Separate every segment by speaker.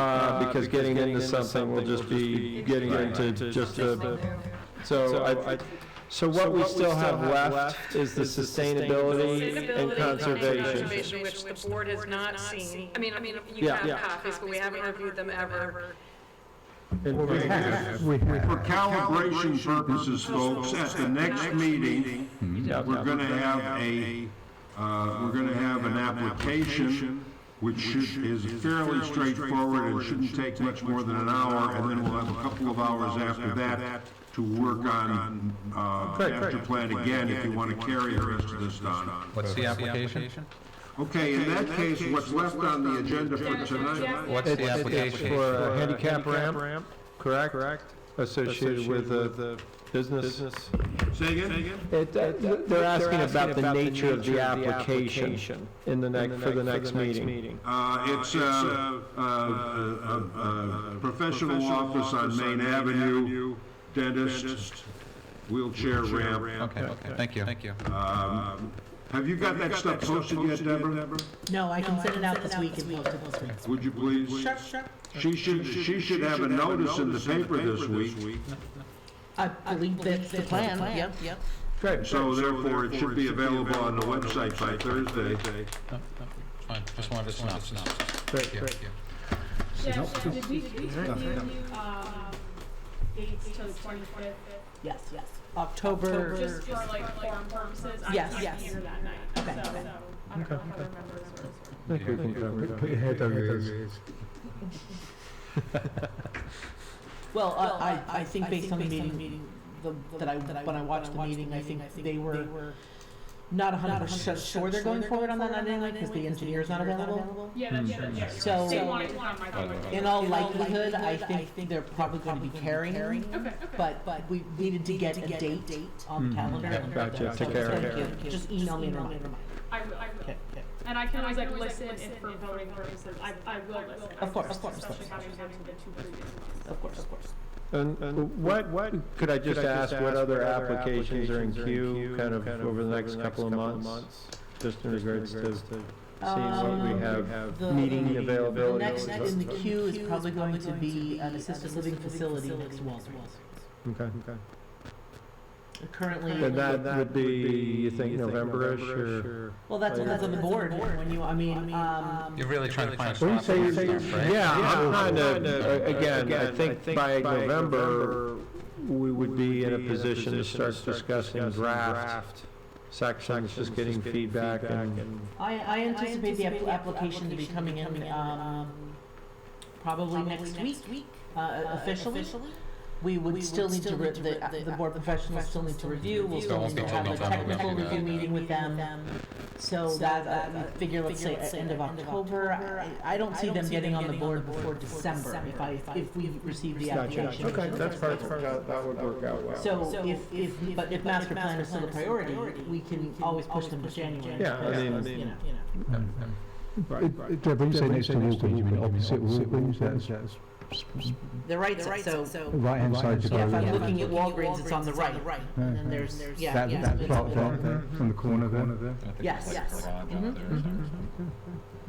Speaker 1: Uh, because getting into something will just be getting into just a, so I, so what we still have left is the sustainability and
Speaker 2: Sustainability
Speaker 1: conservation.
Speaker 2: conservation, Which the board has not seen. I mean, I mean, you
Speaker 1: Yeah.
Speaker 2: have
Speaker 1: Yeah.
Speaker 2: copies, but we haven't reviewed them ever.
Speaker 1: And-
Speaker 3: We have,
Speaker 4: For calibration purposes, folks, at the next meeting,
Speaker 1: Mm-hmm. yeah,
Speaker 4: we're
Speaker 1: yeah.
Speaker 4: going to have a, uh, we're going to have an application, which should, is fairly straightforward and shouldn't take much more than an hour, and then we'll have a couple of hours after that to work on uh, master plan again, if you want to carry the rest of this, Don.
Speaker 5: What's the application?
Speaker 4: Okay, in that case, what's left on the agenda for tonight,
Speaker 1: É,
Speaker 5: What's the
Speaker 1: For
Speaker 5: application?
Speaker 1: a handicap ramp, correct? Correct. Associated with the business.
Speaker 4: say again?
Speaker 1: It- uh, They're asking about the nature of the application in the next, for the next meeting.
Speaker 4: Uh, It's uh, uh, a a- a professional office on Main Avenue, dentist, wheelchair ramp.
Speaker 5: Okay, okay, thank you. Thank you.
Speaker 4: Um, Have you got that stuff posted yet, Deborah?
Speaker 6: No, I can send it out this week and post it this week.
Speaker 4: Would you please?
Speaker 6: Sure, sure.
Speaker 4: She should, she should have a notice in the paper this week,
Speaker 6: I believe that's the plan, yep, yep.
Speaker 4: so therefore it should be available on the website by Thursday.
Speaker 5: Fine, just wanted to know.
Speaker 1: Great,
Speaker 5: Yeah,
Speaker 1: great.
Speaker 5: yeah.
Speaker 7: Jeff, did we, did we review, um, dates till the twenty-fifth?
Speaker 6: Yes, yes. October,
Speaker 7: Just for like form purposes, I
Speaker 6: Yes,
Speaker 7: can't
Speaker 6: yes.
Speaker 7: be here that night, so, so,
Speaker 6: Okay.
Speaker 7: I don't know if other members are.
Speaker 3: put your head on your ears.
Speaker 6: well, I, I- I think based on the meeting, the- that I, when I watched the meeting, I think they were not a hundred percent sure they're going forward on that night anyway, because the engineer's not available.
Speaker 7: Yeah, that's, yeah, that's- yeah. you're right.
Speaker 6: So-
Speaker 7: They wanted one on my phone. Okay,
Speaker 6: In all likelihood, I think they're probably going to be carrying,
Speaker 7: okay.
Speaker 6: but, but we needed to get a date Mm-hmm. on the calendar.
Speaker 1: Gotcha,
Speaker 6: So
Speaker 1: take care of
Speaker 6: thank
Speaker 1: it.
Speaker 6: you. Just email me and remind me.
Speaker 7: I will, I will.
Speaker 6: Okay, okay.
Speaker 7: And I can always like listen if for voting purposes, I, I will listen.
Speaker 6: Of course, of course, of
Speaker 7: Especially having been to the two previous ones.
Speaker 6: Of course, of course.
Speaker 1: And and what, what, could I just ask what other applications are in queue, kind of over the next couple of months? Just in regards to seeing what
Speaker 6: Um,
Speaker 1: we have,
Speaker 6: the-
Speaker 1: meeting
Speaker 6: The
Speaker 1: availability.
Speaker 6: next in the queue is probably going to be an assisted living facility next to Walgreens.
Speaker 1: Okay, okay.
Speaker 6: Currently,
Speaker 1: And that would be, you think, November-ish or?
Speaker 6: well, that depends on the board, when you, I mean, um,
Speaker 5: You're really trying to find a
Speaker 1: Well,
Speaker 5: spot for
Speaker 1: you
Speaker 5: your
Speaker 1: say-
Speaker 5: stuff, right?
Speaker 1: Yeah, I'm trying to, again, I think by November, we would be in a position to start discussing draft sections, just getting feedback and,
Speaker 6: I, I anticipate the app- application to be coming in, um, probably next week, uh, officially. We would still need to, re- the, the board professionals still need to review, we'll
Speaker 5: So it
Speaker 6: still
Speaker 5: won't
Speaker 6: need to
Speaker 5: be
Speaker 6: have
Speaker 5: till
Speaker 6: a
Speaker 5: November we
Speaker 6: technical
Speaker 5: do
Speaker 6: review
Speaker 5: that.
Speaker 6: meeting with them. So that, I figure, let's say, at end of October, I, I don't see them getting on the board before December if I, if we receive the application.
Speaker 1: okay, that's perfect, that that would work out well.
Speaker 6: So if, if, but if master plan is still a priority, we can always push them to January.
Speaker 1: Yeah, I mean-
Speaker 6: You know,
Speaker 3: Deborah, you say next to Walgreens, you mean opposite Walgreens, that's
Speaker 6: they're right, so,
Speaker 3: right-hand side of
Speaker 6: yeah, if I'm
Speaker 3: the road.
Speaker 6: looking at Walgreens, it's on the right. And then there's, yeah,
Speaker 3: That,
Speaker 6: yeah.
Speaker 3: that
Speaker 6: it's-
Speaker 3: plot there, there, from the corner there.
Speaker 5: I think it's
Speaker 6: Yes,
Speaker 5: like a
Speaker 6: yes.
Speaker 5: garage out
Speaker 6: Mhm,
Speaker 5: there or something.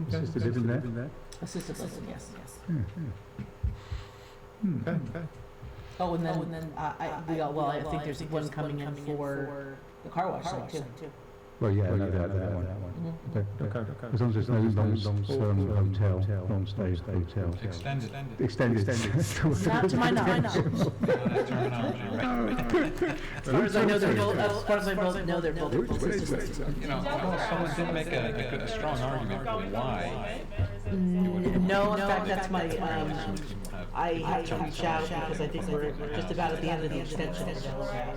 Speaker 3: Assisted living there.
Speaker 6: Assisted living, yes, yes.
Speaker 3: Hmm,
Speaker 1: Okay, okay.
Speaker 6: Oh, and then, uh, I, we got, well, I think there's one coming in for the car wash site too.
Speaker 3: Well, yeah, no, that, that one. Okay, okay.
Speaker 1: okay.
Speaker 3: As long as it's no long, long-term hotel, long-stay hotel.
Speaker 5: Extend it. No,
Speaker 3: Extended.
Speaker 6: Not to my knowledge.
Speaker 5: that terminology, right.
Speaker 6: As far as I know, they're both, as far as I both know, they're both assisted living.
Speaker 5: You know, although someone did make a, a good- a strong argument for why.
Speaker 6: N- No, in fact, that's my, um,
Speaker 5: uh,
Speaker 6: I have to reach out because I think we're just about at the end of the extension.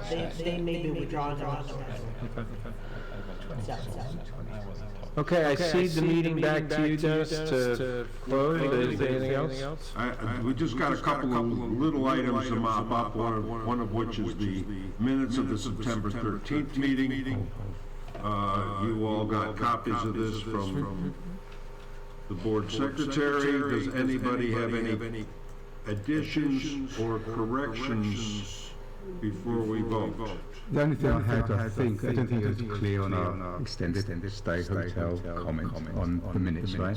Speaker 6: They, they may be withdrawing their extension. So,
Speaker 5: I wasn't told.
Speaker 1: Okay, I see the meeting back to you, Dennis, to close, is there anything else?
Speaker 4: I- I- We just got a couple of little items to mop up, one of one of which is the minutes of the September 13th meeting. Uh, You all got copies of this from the board secretary. Does anybody have any additions or corrections before we vote?
Speaker 3: The only thing I had, I think, I don't think it was clear on our extended stay hotel comment on the minutes, right?